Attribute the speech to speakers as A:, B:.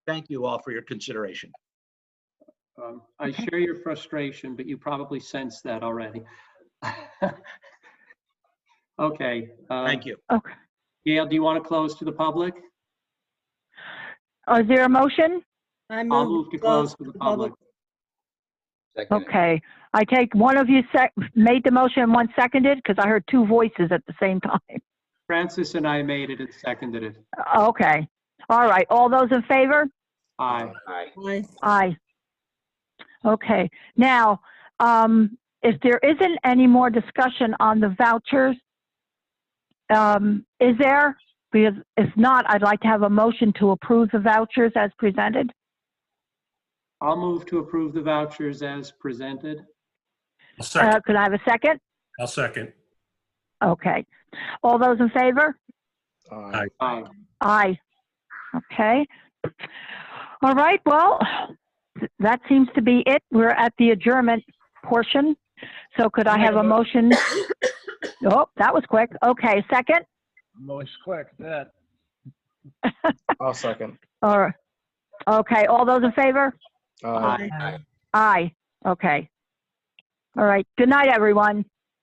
A: Thank you all for your consideration.
B: Um, I share your frustration, but you probably sense that already. Okay. uh,
A: Thank you.
C: Okay.
B: Gail, do you want to close to the public?
C: Oh, Is there a motion?
D: I
B: I'll
D: move
B: move to close to the public.
E: Second.
C: Okay. I take one of you sec, made the motion and one seconded, because I heard two voices at the same time.
B: Francis and I made it and seconded it.
C: Okay. All right. All those in favor?
B: Aye.
E: Aye.
D: Aye.
C: Aye. Okay, now, um, if there isn't any more discussion on the vouchers, um, is there? Because if not, I'd like to have a motion to approve the vouchers as presented.
B: I'll move to approve the vouchers as presented.
F: I'll
C: Uh,
F: second.
C: could I have a second?
F: I'll second.
C: Okay. All those in favor?
E: Aye.
B: Aye.
C: Aye. Okay. All right, well, th- that seems to be it. We're at the adjournment portion. So could I have a motion? Oh, that was quick. Okay, second?
G: Most quick, that.
E: I'll second.
C: All right. Okay, all those in favor?
B: Aye.
E: Uh,
C: Aye. Okay. All right. Good night, everyone.